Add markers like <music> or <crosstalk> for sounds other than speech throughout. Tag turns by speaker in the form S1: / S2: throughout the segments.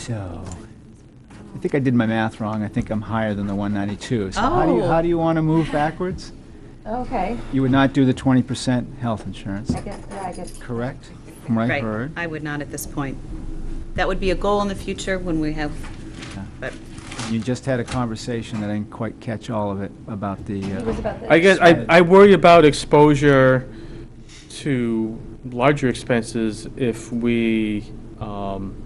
S1: So, I think I did my math wrong. I think I'm higher than the 192. So how do you,
S2: Oh.
S1: how do you want to move backwards?
S3: Okay,
S1: You would not do the 20% health insurance,
S3: I guess, yeah, I guess,
S1: correct? From what I
S2: Right,
S1: heard.
S2: I would not at this point. That would be a goal in the future when we have, but,
S1: You just had a conversation that I didn't quite catch all of it about the,
S3: it was
S1: uh,
S3: about the.
S4: I guess, I, I worry about exposure to larger expenses if we um,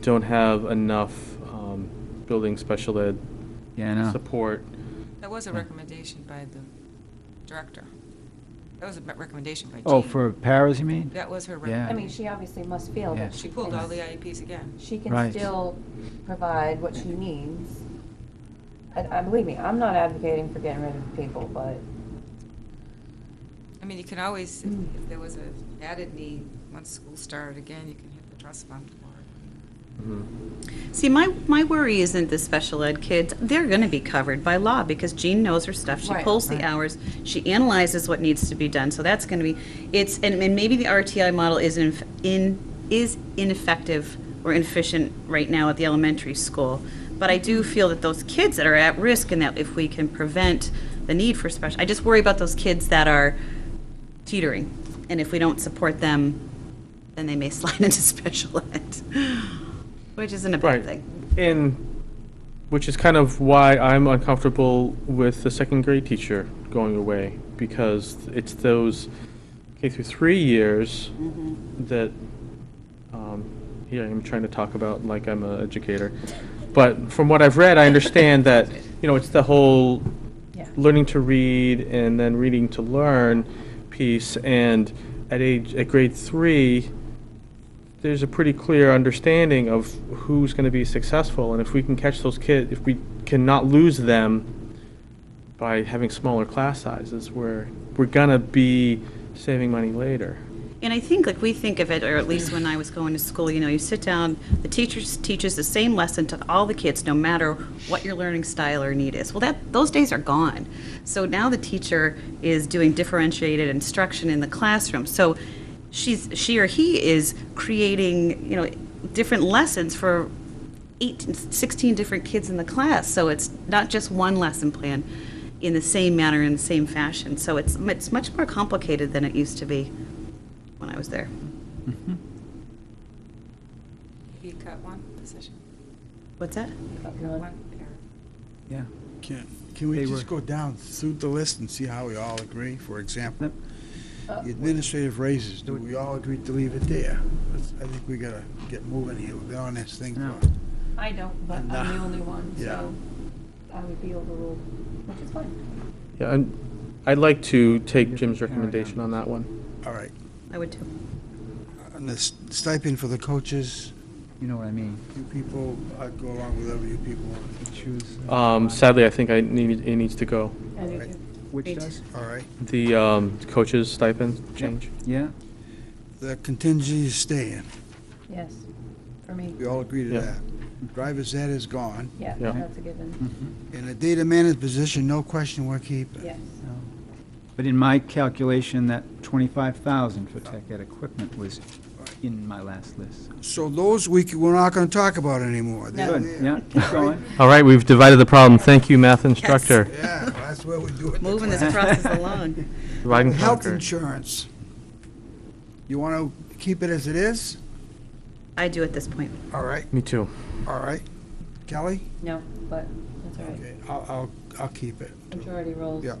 S4: don't have enough um, building special ed
S1: yeah, I know.
S4: support.
S5: That was a recommendation by the director. That was a recommendation by Jean.
S1: Oh, for paras, you mean?
S5: That was her
S1: Yeah.
S5: recommendation.
S3: I mean, she obviously must feel
S1: Yeah.
S3: that.
S5: She pulled all the IEPs again.
S3: She
S1: Right.
S3: can still provide what she needs. And, I believe me, I'm not advocating for getting rid of people, but
S5: I mean, you can always, if
S3: Hmm.
S5: if there was an added need, once school started again, you can hit the trust fund for it.
S4: Mm-hmm.
S2: see, my, my worry isn't the special ed kids. They're going to be covered by law because Jean knows her stuff. She
S5: Right,
S2: pulls the hours, she analyzes what needs to be done, so that's going to be, it's, and, and maybe the RTI model is in, in, is ineffective or inefficient right now at the elementary school. But I
S5: Mm-hmm.
S2: do feel that those kids that are at risk and that if we can prevent the need for special, I just worry about those kids that are teetering. And if we don't support them, then they may <laughs> slide into special ed, which isn't a bad
S4: Right.
S2: thing.
S4: And, which is kind of why I'm uncomfortable with the second grade teacher going away, because it's those K through three years
S2: Mm-hmm.
S4: that, um, here I'm trying to talk about like I'm an educator. But from what I've read,
S2: <laughs>
S4: I understand that, you know, it's the whole
S3: Yeah.
S4: learning to read and then reading to learn piece, and at age, at grade three, there's a pretty clear understanding of who's going to be successful, and if we can catch those kids, if we cannot lose them by having smaller class sizes, we're we're gonna be saving money later.
S2: And I think, like, we think of it, or at least when I was going to school, you know, you sit down, the teacher s- teaches the same lesson to all the kids, no matter what your learning style or need is. Well, that, those days are gone. So now the teacher is doing differentiated instruction in the classroom. So she's, she or he is creating, you know, different lessons for 18, 16 different kids in the class. So it's not just one lesson plan in the same manner, in the same fashion. So it's, it's much more complicated than it used to be when I was there.
S5: Maybe you cut one position,
S2: What's that?
S5: cut one parent.
S1: Yeah.
S6: Can, can we
S1: They
S6: just
S1: were-
S6: go down through the list and see how we all agree? For example,
S3: Uh,
S6: the administrative raises, do we all agree to leave it there? Let's- I think we gotta get moving here, we've been on this thing
S1: No.
S6: for,
S3: I don't, but I'm
S6: Nah.
S3: the only one,
S6: Yeah.
S3: so I would be overruled, which is fine.
S4: Yeah, and I'd like to take
S1: You're
S4: Jim's
S1: preparing
S4: recommendation
S1: on
S4: on that one.
S6: all right.
S2: I would too.
S6: And the s- stipend for the coaches,
S1: You know what I mean?
S6: you people, I'd go along with whatever you people want,
S1: Choose. uh,
S4: Um, sadly, I think I need it needs to go.
S3: And if
S6: Right.
S3: you-
S1: Which
S2: Eight.
S1: does?
S6: all right?
S4: The um, coaches stipend change.
S1: Yeah?
S6: The contingency is staying,
S3: Yes, for me,
S6: we all agree to
S4: Yeah.
S6: that. Driver's ed is gone,
S3: yeah,
S4: Yeah.
S3: that's a given,
S6: and the data manager position, no question, we're keeping.
S3: yes.
S1: But in my calculation, that 25,000 for tech ed equipment was in my last list.
S6: So those we, c- we're not gonna talk about anymore. They're
S1: Good,
S6: there.
S1: yeah,
S6: <laughs>
S1: keep going.
S4: All right, we've divided the problem. Thank you, math instructor.
S6: Yeah, well, that's where we do it.
S2: Moving this <laughs> process along.
S4: Divide and
S6: Health
S4: conquer.
S6: insurance. You want to keep it as it is?
S2: I do at this point.
S6: All right,
S4: Me too.
S6: all right. Kelly?
S3: No, but that's all right,
S6: Okay, I'll, I'll, I'll keep it.
S3: majority rules.
S6: Yeah.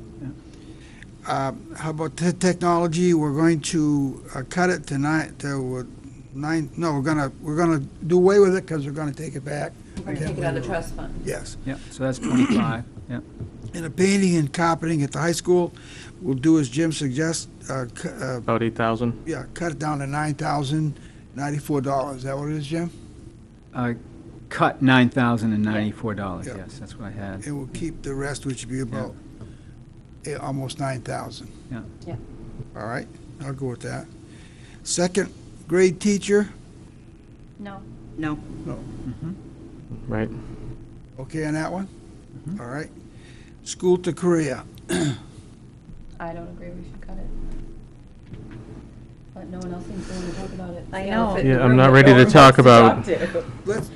S6: Um, How about the technology? We're going to uh, cut it tonight to uh, nine, no, we're gonna, we're gonna do away with it because we're gonna take it back.
S3: We're gonna take it out of the trust fund.
S6: Yes.
S1: Yeah, so that's 25, yeah.
S6: And the painting and carpeting at the high school, we'll do as Jim suggests, uh, cu- uh,
S4: About eight thousand.
S6: yeah, cut it down to nine thousand ninety-four dollars. Is that what it is, Jim?
S1: I Uh, cut $9,094,
S6: Yeah.
S1: yes, that's what I had.
S6: It will keep the rest, which would be about eh, almost nine thousand.
S1: Yeah.
S3: Yeah.
S6: All right, I'll go with that. Second grade teacher,
S3: No,
S2: No.
S1: Mm-hmm.
S4: Right.
S6: okay on that one? All right. School to Korea,
S3: I don't agree we should cut it. But no one else seems willing to talk about it.
S2: I
S3: Yeah,
S2: know.
S3: fit in
S4: Yeah,
S3: the
S4: I'm
S3: room
S4: not
S3: that
S4: ready
S3: no
S4: to
S3: one
S4: talk
S3: wants
S4: about
S3: to.
S6: let's,